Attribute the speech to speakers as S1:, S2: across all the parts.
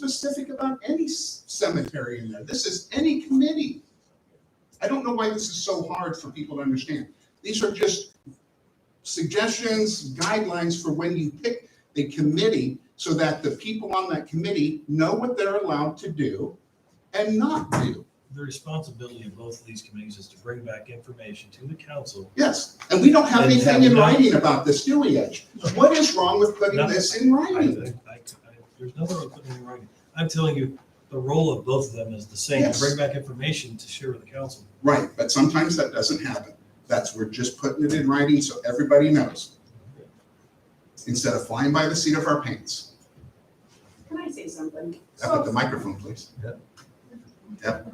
S1: specific about any c- cemetery in there. This is any committee. I don't know why this is so hard for people to understand. These are just suggestions, guidelines for when you pick the committee so that the people on that committee know what they're allowed to do and not do.
S2: The responsibility of both of these committees is to bring back information to the council.
S1: Yes, and we don't have
S2: And
S1: anything in
S2: have not-
S1: writing about this, do we, Edge? What is wrong with putting
S2: No.
S1: this in
S2: I,
S1: writing?
S2: I, I, there's nothing I'm putting in writing. I'm telling you, the role of both of them is the same, to
S1: Yes.
S2: bring back information to share with the council.
S1: Right, but sometimes that doesn't happen. That's, we're just putting it in writing so everybody knows. Instead of flying by the seat of our pants.
S3: Can I say something?
S1: Up at the
S3: So-
S1: microphone, please.
S3: Whatever.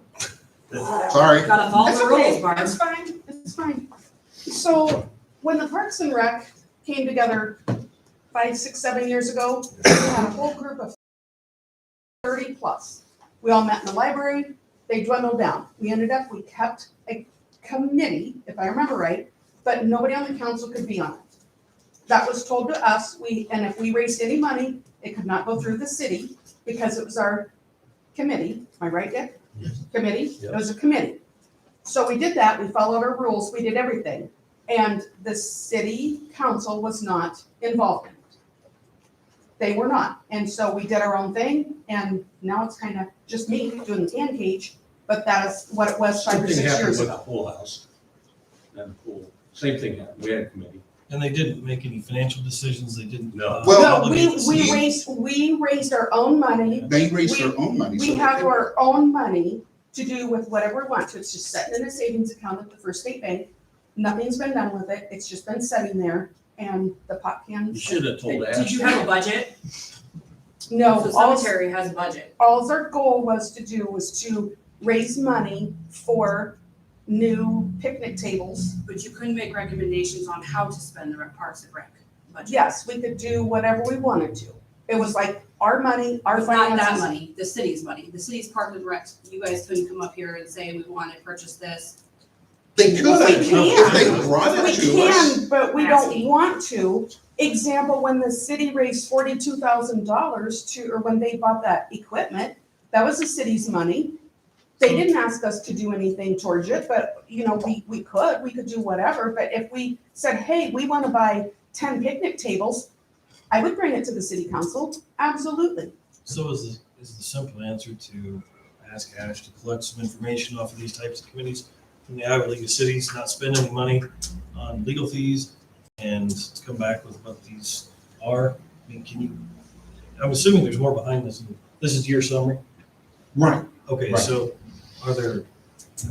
S1: Sorry.
S4: Gotta follow
S3: It's
S4: the
S3: okay.
S4: rules, Barb.
S3: It's fine, it's fine. So when the Parks and Rec came together five, six, seven years ago, we had a whole group of thirty plus. We all met in the library, they dwindled down. We ended up, we kept a committee, if I remember right, but nobody on the council could be on it. That was told to us, we, and if we raised any money, it could not go through the city because it was our committee, am I right, Dick?
S2: Yes.
S3: Committee, it
S2: Yep.
S3: was a committee. So we did that, we followed our rules, we did everything. And the city council was not involved in it. They were not. And so we did our own thing and now it's kind of just me doing the tan cage, but that is what it was five or
S5: Same thing
S3: six
S5: happened
S3: years
S5: with the
S3: ago.
S5: pool house and the pool. Same thing happened. We had a committee.
S2: And they didn't make any financial decisions, they didn't.
S5: No.
S2: uh,
S1: Well-
S3: No,
S2: obligate
S3: we,
S2: the
S3: we
S2: city.
S3: raised, we raised our own money.
S1: They raise their own money. so
S3: We
S1: they
S3: have
S1: can-
S3: our own money to do with whatever we want to. It's just sitting in a savings account at the First State Bank. Nothing's been done with it. It's just been sitting there and the pot can.
S5: You should have told
S4: Did
S5: Ash.
S4: you have a budget?
S3: No, Oh,
S4: The
S3: all,
S4: cemetery has a budget.
S3: all our goal was to do was to raise money for new picnic tables.
S4: But you couldn't make recommendations on how to spend the rec- Parks and Rec budget.
S3: Yes, we could do whatever we wanted to. It was like our money, our
S4: It's not that
S3: finances.
S4: money, the city's money. The city's Parks and Rec, you guys couldn't come up here and say, we want to purchase this.
S1: They could,
S3: We
S1: if
S3: can.
S1: they brought
S3: We
S1: it to us.
S3: can, but we don't
S4: Asking.
S3: want to. Example, when the city raised forty-two thousand dollars to, or when they bought that equipment, that was the city's money. They didn't ask us to do anything towards it, but, you know, we, we could, we could do whatever, but if we said, hey, we wanna buy ten picnic tables, I would bring it to the city council, absolutely.
S2: So is the, is the simple answer to ask Ash to collect some information off of these types of committees from the Iowa League of Cities, not spend any money on legal fees and come back with what these are? I mean, can you, I'm assuming there's more behind this. This is your summary?
S1: Right.
S2: Okay,
S1: Right.
S2: so are there,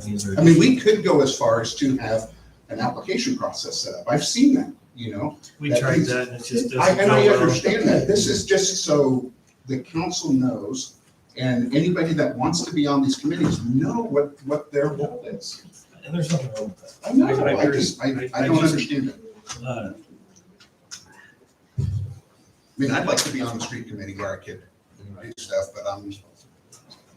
S2: I mean, is there?
S1: I mean, we could go as far as to have an application process set up. I've seen that, you know?
S2: We tried that and it just
S1: I,
S2: doesn't
S1: and I
S2: go well.
S1: understand that, this is just so the council knows, and anybody that wants to be on these committees know what, what their role is.
S2: And there's nothing wrong with that.
S1: I know,
S2: I- I
S1: I just, I,
S2: agree. I-
S1: I
S2: I
S1: don't
S2: just-
S1: understand it.
S2: Uh,
S1: I mean, I'd like to be on the street committee where I could do stuff, but I'm,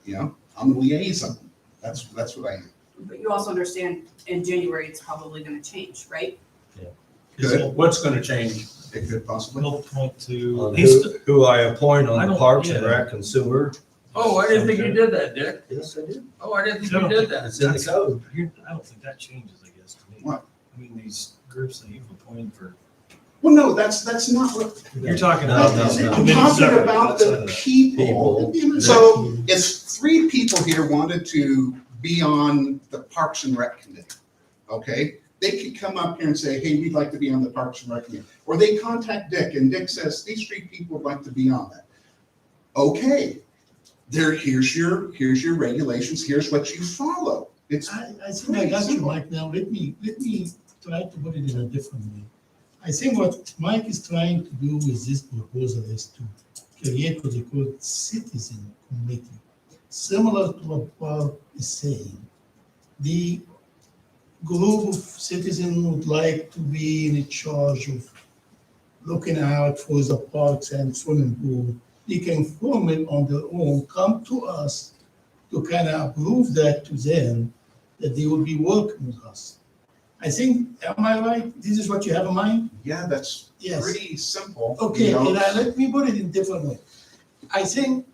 S1: you know, I'm the liaison, that's, that's what I am.
S4: But you also understand in January, it's probably going to change, right?
S2: Is
S1: Good.
S2: it
S5: What's going to change?
S1: It could possibly,
S2: will point to,
S6: on
S2: he's,
S6: Who who I appoint
S2: I
S6: on the
S2: don't-
S6: Parks and
S2: yeah.
S6: Rec and Sewer.
S5: Oh, I didn't think you did that, Dick.
S6: Yes, I do.
S5: Oh, I didn't think you did that.
S6: It's in the code.
S2: Here, I don't think that changes, I guess, to me.
S1: What?
S2: I mean, these groups that you've appointed for,
S1: well, no, that's, that's not what,
S2: you're talking
S6: No,
S2: about.
S6: no,
S2: these
S6: no.
S1: I'm
S2: committees
S1: talking
S2: separate uh,
S1: about
S2: outside of
S1: the
S2: that.
S1: people. So if three people here wanted to be on the Parks and Rec Committee, okay? They could come up here and say, hey, we'd like to be on the Parks and Rec Committee. Or they contact Dick and Dick says, these three people would like to be on that. Okay, there, here's your, here's your regulations, here's what you follow. It's,
S7: I, I think I got you, Mike, now let me, let me try to put it in a different way. I think what Mike is trying to do with this proposal is to create what they call citizen committee. Similar to what Bob is saying, the group of citizens would like to be in charge of looking out for the parks and swimming pool. They can form it on their own, come to us to kind of prove that to them, that they will be working with us. I think, am I right? This is what you have in mind?
S1: yeah, that's
S7: Yes.
S1: pretty simple. you
S7: Okay,
S1: know?
S7: and I, let me put it in different way. I think